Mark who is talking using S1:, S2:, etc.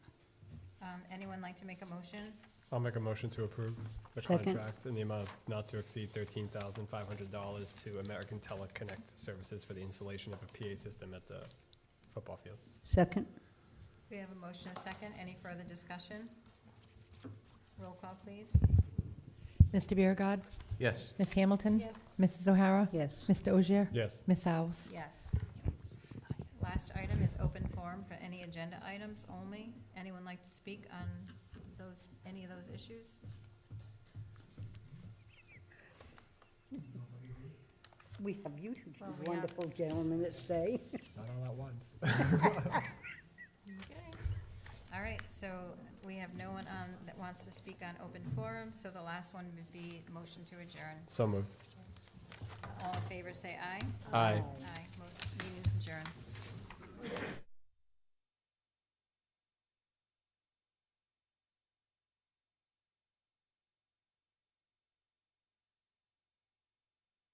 S1: Um, Anyone like to make a motion?
S2: I'll make a motion to approve the
S3: Second.
S2: contract in the amount of not to exceed thirteen thousand five hundred dollars to American Teleconnect Services for the installation of a PA system at the football field.
S3: Second,
S1: We have a motion, and a second. Any further discussion? Roll call, please.
S4: Mr. Biragad.
S5: Yes.
S4: Ms. Hamilton. Mrs. O'Hara.
S3: yes.
S4: Mr. Ogier.
S2: Yes,
S4: Ms. Alves.
S1: Yes. Last item is open forum for any agenda items only. Anyone like to speak on those, any of those issues?
S3: We have you two
S1: Well, we have-
S3: wonderful gentlemen that say.
S2: not all at once.
S1: Okay. All right, so we have no one on, that wants to speak on open forum, so the last one would be motion to adjourn.
S2: So moved.
S1: All in favor, say aye.
S2: Aye.
S1: Aye. Mo- Meeting's adjourned.